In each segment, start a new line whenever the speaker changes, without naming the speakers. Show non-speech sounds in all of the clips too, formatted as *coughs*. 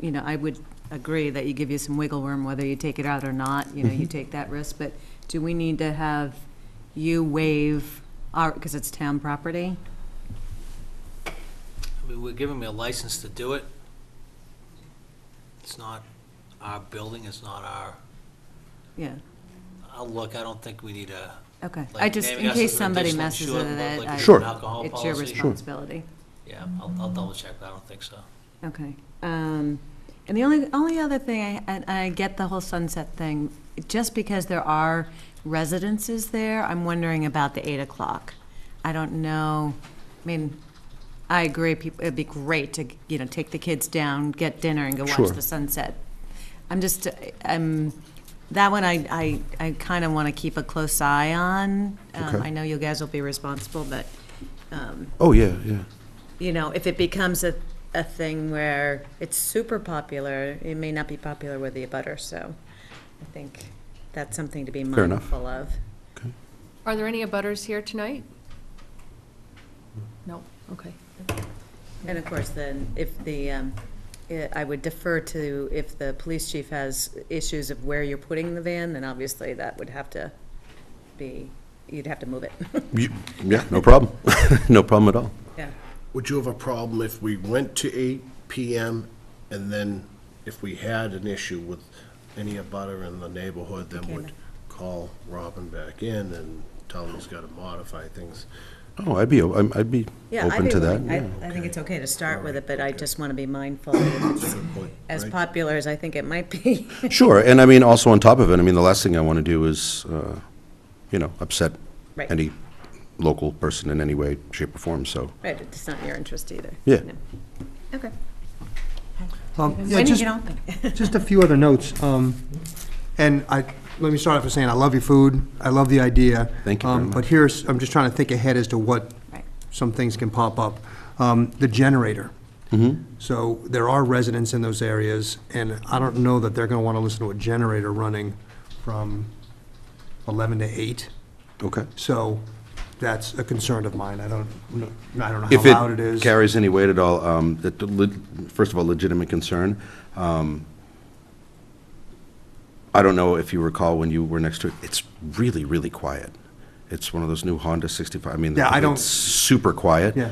you know, I would agree that you give you some wiggle room whether you take it out or not, you know, you take that risk, but do we need to have you waive our, because it's town property?
I mean, we're giving me a license to do it. It's not our building, it's not our,
Yeah,
I'll look, I don't think we need a.
okay.
like,
I just,
naming
in
us
case
as an
somebody
additional
messes
insured,
with it,
like we
I-
do
it's
an alcohol
your
policy.
responsibility.
Yeah, I'll, I'll double check, but I don't think so.
Okay. Um, And the only, only other thing, I, and I get the whole sunset thing, just because there are residences there, I'm wondering about the eight o'clock. I don't know, I mean, I agree, peop- it'd be great to, you know, take the kids down, get dinner and go
Sure.
watch the sunset. I'm just, um, that one I, I, I kind of want to keep a close eye on. Um,
Okay.
I know you guys will be responsible, but, um,
Oh, yeah, yeah.
you know, if it becomes a, a thing where it's super popular, it may not be popular with the abutter, so I think that's something to be
Fair enough.
mindful of.
Are there any abutters here tonight? No, okay.
And of course, then, if the, um, eh, I would defer to, if the police chief has issues of where you're putting the van, then obviously that would have to be, you'd have to move it,
You- Yeah, no problem. *laughs* No problem at all.
yeah.
Would you have a problem if we went to eight PM and then if we had an issue with any abutter in the neighborhood, then
Okay.
would call Robin back in and tell him he's gotta modify things?
Oh, I'd be, o- I'm- I'd be
*laughs* Yeah, I'd
open
be
to that.
willing- I, I think it's okay to start with it, but I just want to be
*coughs*
mindful, that it's
Good point,
as
right?
popular as I think it might be. *laughs*
Sure, and I mean, also on top of it, I mean, the last thing I want to do is, uh, you know, upset
Right.
any local person in any way, shape, or form, so.
Right, it's not in your interest either.
Yeah.
No. Okay.
Um, yeah,
When you
just-
get open?
Just a few other notes. um, And I, let me start off with saying, I love your food, I love the idea.
Thank you very
um,
much.
But here's, I'm just trying to think ahead as to what
Right.
some things can pop up. Um, The generator.
Mm-hmm.
So there are residents in those areas, and I don't know that they're going to want to listen to a generator running from 11 to 8.
Okay.
So that's a concern of mine. I don't, kn- I don't know
If
how loud it
it
is.
carries any weight at all, um, that the leg- first of all, legitimate concern. um, I don't know if you recall when you were next to it, it's really, really quiet. It's one of those new Honda 65, I mean,
Yeah, I don't-
it's super quiet.
Yeah.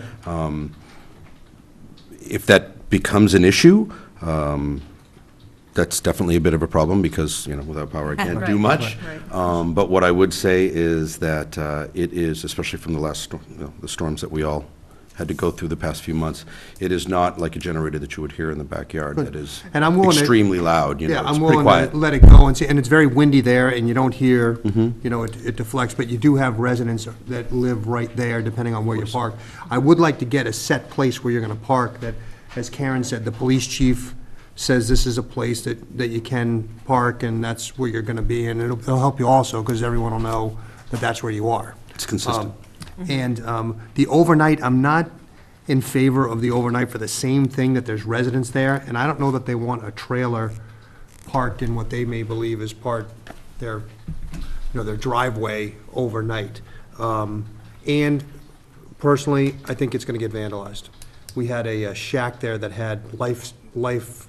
If that becomes an issue, um, that's definitely a bit of a problem, because, you know, without power, I can't do
Right,
much.
right.
Um, But what I would say is that uh, it is, especially from the last, storm- you know, the storms that we all had to go through the past few months, it is not like a generator that you would hear in the backyard that is
And I'm willing to-
extremely loud, you know,
Yeah,
it's
I'm
pretty
willing
quiet.
to let it go and see, and it's very windy there, and you don't hear,
Mm-hmm.
you know, it it deflects, but you do have residents that live right there, depending on where you park. I would like to get a set place where you're gonna park, that, as Karen said, the police chief says this is a place that, that you can park, and that's where you're gonna be, and it'll, it'll help you also, because everyone will know that that's where you are.
It's consistent.
Um, And um, the overnight, I'm not in favor of the overnight for the same thing, that there's residents there, and I don't know that they want a trailer parked in what they may believe is part their, you know, their driveway overnight. Um, And personally, I think it's gonna get vandalized. We had a uh, shack there that had life, life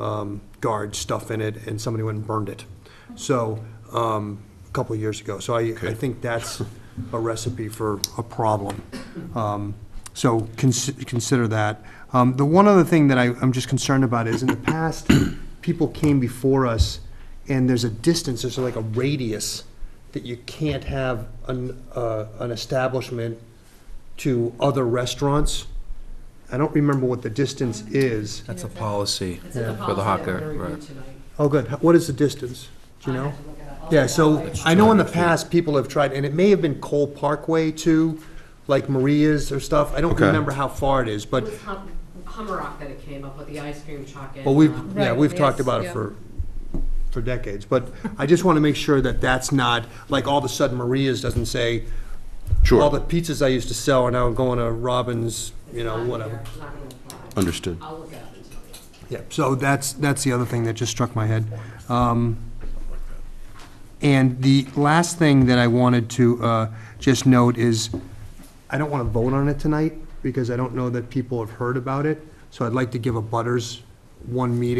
um, guard stuff in it, and somebody went and burned it. So, um, a couple of years ago. So I, I think that's a recipe for a problem. Um, So cons- consider that. Um, The one other thing that I, I'm just concerned about is, in the past, people came before us, and there's a distance, there's like a radius that you can't have an, uh, an establishment to other restaurants. I don't remember what the distance is.
That's a policy
It's in the
for the
policy that
hawker,
we're reviewing
right.
tonight.
Oh, good. What is the distance? Do you know? Yeah, so I know in the past, people have tried, and it may have been Cole Parkway too, like Maria's or stuff. I don't
Okay.
remember how far it is,
It
but,
was Hum- Hummerock that it came up with, the ice cream truck and.
but we've,
um,
yeah,
Right,
we've talked
yes,
about it
yeah.
for, for decades. But I just want to make sure that that's not, like, all of a sudden Maria's doesn't say,
Sure.
all the pizzas I used to sell are now going to Robin's, you know,
not
whatever.
here, it's not gonna apply.
Understood.
I'll look it up and tell you.
Yeah, so that's, that's the other thing that just struck my head. Um, And the last thing that I wanted to uh, just note is, I don't want to vote on it tonight, because I don't know that people have heard about it, so I'd like to give a butters one meeting